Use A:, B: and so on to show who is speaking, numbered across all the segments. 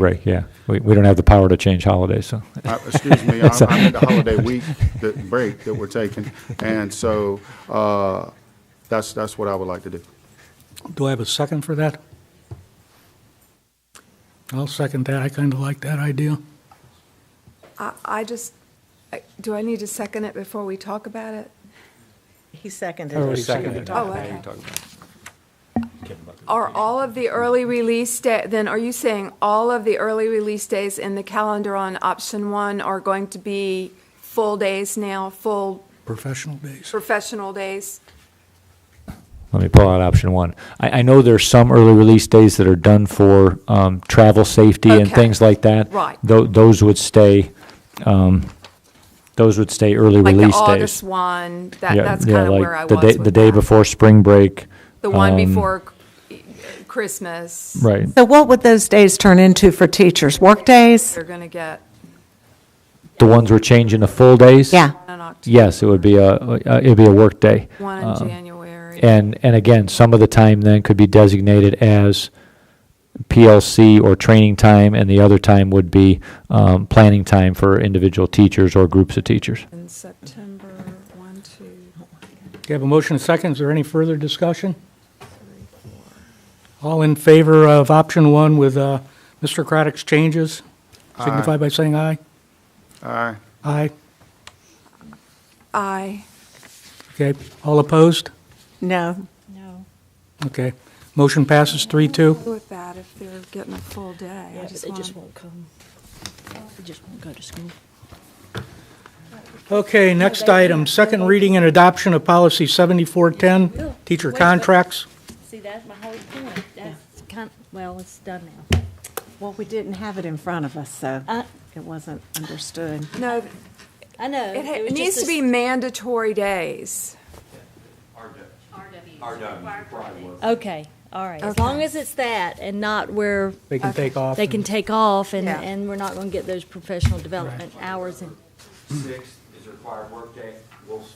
A: break, yeah. We, we don't have the power to change holidays, so.
B: Uh, Excuse me, I'm I'm in the holiday week, the break that we're taking, and so uh, that's, that's what I would like to do.
C: Do I have a second for that? I'll second that. I kind of like that idea.
D: I, I just, I- do I need to second it before we talk about it?
E: He seconded
C: Already
E: it.
C: seconded it.
D: Oh, okay. Are all of the early release day, then are you saying all of the early release days in the calendar on option one are going to be full days now, full
C: Professional days.
D: professional days?
A: Let me pull out option one. I, I know there's some early release days that are done for, um, travel safety and
D: Okay.
A: things like that.
D: Right.
A: Tho- those would stay, um, those would stay early
D: Like the
A: release
D: August
A: days.
D: one, that,
A: Yeah,
D: that's
A: yeah,
D: kind of
A: like
D: where I was
A: the
D: with
A: day- The day
D: that.
A: before spring break,
D: The one before c- Christmas.
A: right.
E: So what would those days turn into for teachers? Work days?
D: They're going to get
A: The ones we're changing to full days?
E: Yeah.
D: one in October,
A: Yes, it would be a, uh, it'd be a workday.
D: one in January.
A: um, And, and again, some of the time then could be designated as PLC or training time, and the other time would be um, planning time for individual teachers or groups of teachers.
D: In September, one, two,
C: Do you have a motion and second? Is there any further discussion? All in favor of option one with uh, Mr. Craddock's changes? Signify by saying aye.
B: All right,
C: Aye.
D: I.
C: Okay. All opposed?
E: No.
C: Okay. Motion passes three, two.
D: Go with that if they're getting a full day. I
F: Yeah, but
D: just
F: they just
D: want,
F: won't come. They just won't go to school.
C: Okay, next item, second reading and adoption of policy 7410, teacher contracts.
G: See, that's my whole point. That's kind, well, it's done now.
E: Well, we didn't have it in front of us, so
G: Uh,
E: it wasn't understood.
D: no,
G: I know.
D: it ha-
G: was
D: it
G: just
D: needs to be
G: a-
D: mandatory days.
G: Okay, all right. As long as it's that and not where
C: They can take off.
G: they can take off and,
D: Yeah.
G: and we're not going to get those professional development hours and,
H: Sixth is a required workday, we'll, s-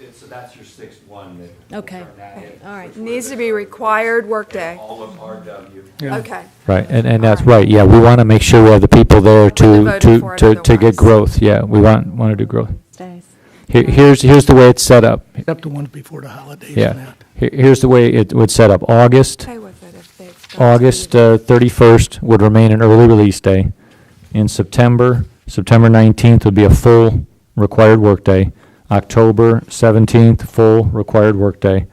H: it- so that's your sixth one that. we'll
G: Okay.
H: turn that in,
G: all right.
D: It Needs to be required workday.
H: All of RW.
C: Yeah.
D: Okay,
A: Right, and, and that's right, yeah, we want to make sure we have the people there to,
D: voted for
A: to,
D: it
A: to, to get
D: otherwise.
A: growth, yeah, we want, want to do growth.
E: Days.
A: Here, here's, here's the way it's set up,
C: Except the ones before the holidays and
A: yeah.
C: that.
A: Here- Here's the way it would set up, August,
D: stay with it if they've. done
A: August
D: it.
A: uh, 31st would remain an early release day. In September, September 19th would be a full required workday. October 17th, full required workday.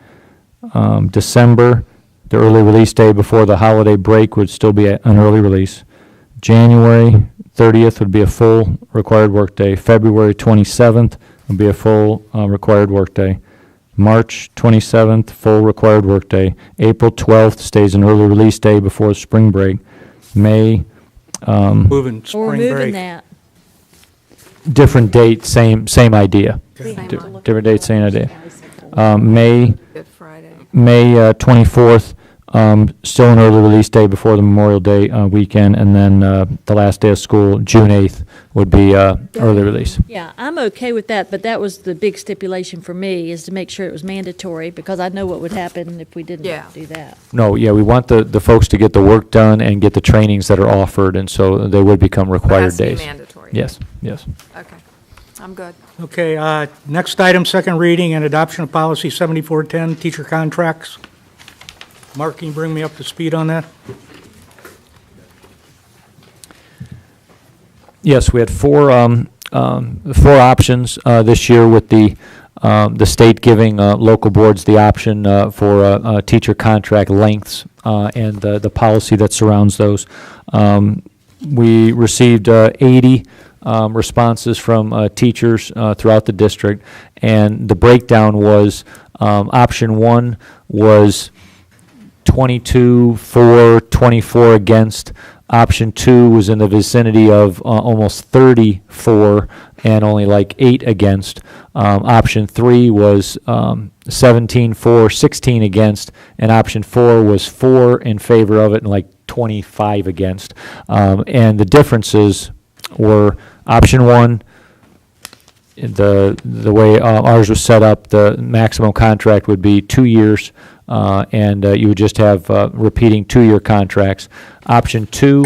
A: Um, December, the early release day before the holiday break would still be a- an early release. January 30th would be a full required workday. February 27th would be a full uh, required workday. March 27th, full required workday. April 12th stays an early release day before spring break. May,
C: Moving
G: or we're
C: spring
G: moving
C: break.
G: that.
A: different date, same, same idea.
D: Same
A: Di-
D: on
A: Different date, same idea. Um, May,
D: Good Friday.
A: May uh, 24th, um, still an early release day before the Memorial Day uh, weekend, and then uh, the last day of school, June 8th, would be uh, early release.
G: Yeah, I'm okay with that, but that was the big stipulation for me is to make sure it was mandatory because I know what would happen if we
D: Yeah.
G: didn't do that.
A: No, yeah, we want the, the folks to get the work done and get the trainings that are offered, and so they would become
D: But it has
A: required
D: to be
A: days.
D: mandatory.
A: Yes, yes.
D: Okay, I'm good.
C: Okay, uh, next item, second reading and adoption of policy 7410, teacher contracts. Mark, can you bring me up to speed on that?
A: Yes, we had four, um, um, four options, uh, this year with the, um, the state giving, uh, local boards the option, uh, for, uh, uh, teacher contract lengths, uh, and the, the policy that surrounds those. Um, we received, uh, eighty, um, responses from, uh, teachers, uh, throughout the district, and the breakdown was, um, option one was, 22 for, 24 against. Option two was in the vicinity of uh, almost 30 for and only like eight against. Um, Option three was um, 17 for, 16 against, and option four was four in favor of it and like 25 against. Um, And the differences were option one, the, the way uh, ours was set up, the maximum contract would be two years, uh, and uh, you would just have uh, repeating two-year contracts. Option two